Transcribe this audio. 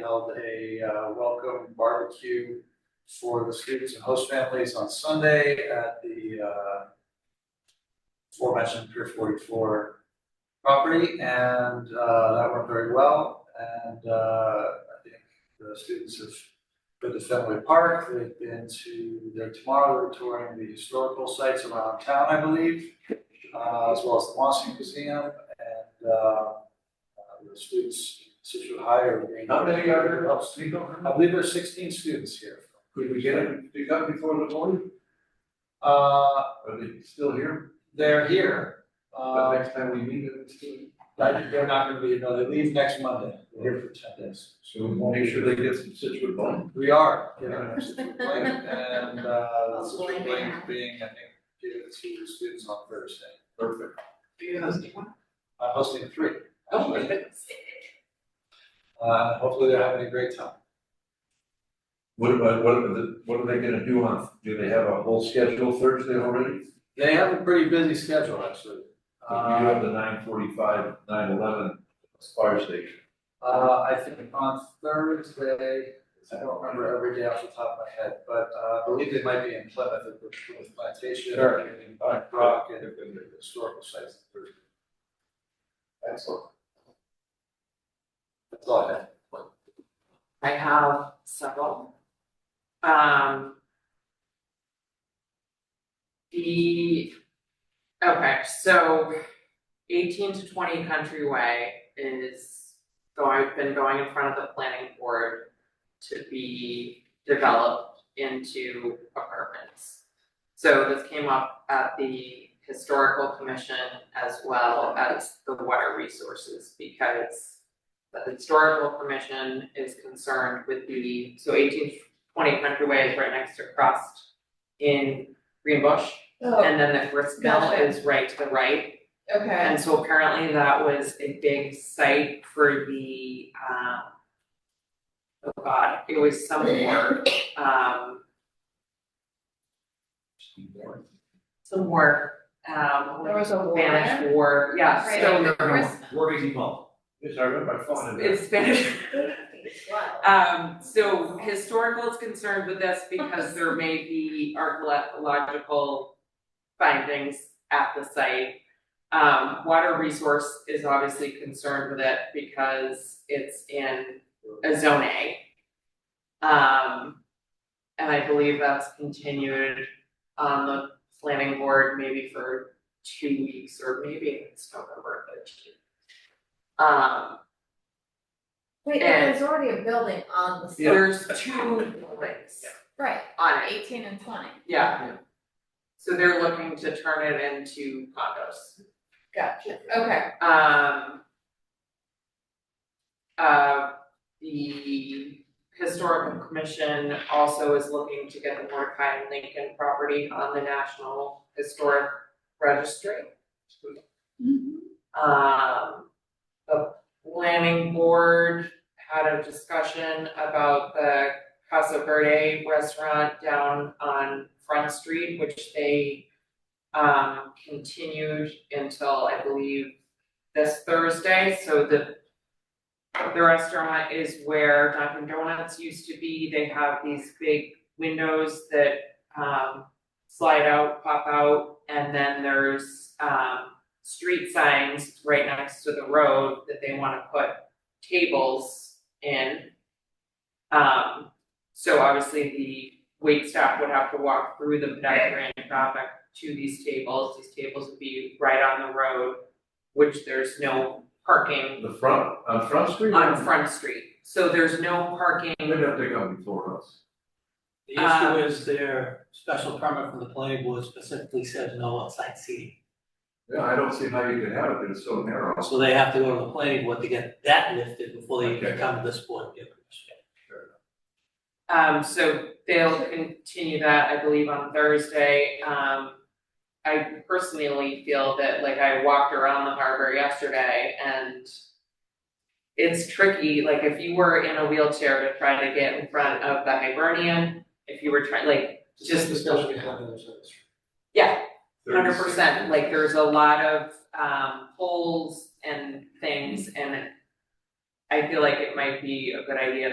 held a uh, welcome barbecue for the students and host families on Sunday at the uh, aforementioned Pier forty-four property, and uh, that went very well. And uh, I think the students have been to Fenway Park, they've been to, they're tomorrow, they're touring the historical sites around town, I believe, uh, as well as the Mosque Museum, and uh, uh, the students, Situate High are being. How many are there? I'll speak over. I believe there's sixteen students here. Could we get them to come before the morning? Uh, Are they still here? they're here. The Uh, next time we meet them, it's still. I- they're not gonna be, no, they leave next Monday, They're here for ten days. So we'll make sure they get some Situate bun. We are, you know, Situate Blank, and, uh, Situate Blank being, I think, given to students on Thursday. Perfect. I'm hosting three. Oh, actually. Uh, hopefully they're having a great time. What about, what are the, what are they gonna do on, do they have a whole schedule Thursday already? They have a pretty busy schedule, actually. If you Uh, have the nine forty-five, nine eleven fire station. uh, I think on Thursday, I don't remember every day off the top of my head, but, uh, I believe they might be in Plymouth at the Plymouth Plantation. and Black Rock and the historical sites. Excellent. That's all I have. I have several. Um. The, okay, so eighteen to twenty Countryway is going, been going in front of the planning board to be developed into apartments. So this came up at the historical commission as well as the water resources because the historical commission is concerned with the, so eighteen twenty Countryway is right next to Crust in Greenbush. Oh, And then the grist mill Gotcha. is right to the right. okay, And so apparently that was a big site for the, um, oh god, it was some word, um, some word, um, there was a war. Spanish war, yeah, Right. so There was- What is involved? Yes, I read my phone in there. it's Spanish. Wow. Um, so historical is concerned with this because there may be archaeological findings at the site. Um, water resource is obviously concerned with it because it's in a zone A. Um, and I believe that's continued on the planning board maybe for two weeks or maybe it's November thirteenth. Um, Wait, no, there's already a building on the site, there's two links right, on it, eighteen and twenty, yeah. So they're looking to turn it into condos. gotcha, okay, Um. Uh, the historical commission also is looking to get the Mordecai and Lincoln property on the National Historic Registry. Um, the planning board had a discussion about the Casa Verde restaurant down on Front Street, which they um, continued until, I believe, this Thursday, so the the restaurant is where Dunkin' Donuts used to be, they have these big windows that um slide out, pop out, and then there's um street signs right next to the road that they wanna put tables in. Um, so obviously the wait staff would have to walk through the pedestrian traffic to these tables, these tables would be right on the road, which there's no parking The front, on Front Street? on Front Street, so there's no They parking, have to come before us. The issue is their special permit from the planning board specifically says no outside seating. Yeah, I don't see how you could have it, but it's so narrow. So they have to go to the planning board to get that lifted before they Okay. can come to this board and give permission. um, so they'll continue that, I believe, on Thursday, um. I personally feel that, like, I walked around the harbor yesterday and. It's tricky, like, if you were in a wheelchair to try to get in front of the Hibernian, if you were trying, like, Just discussion we had in the service. yeah, hundred percent, like there's a lot of um polls and things and I feel like it might be a good idea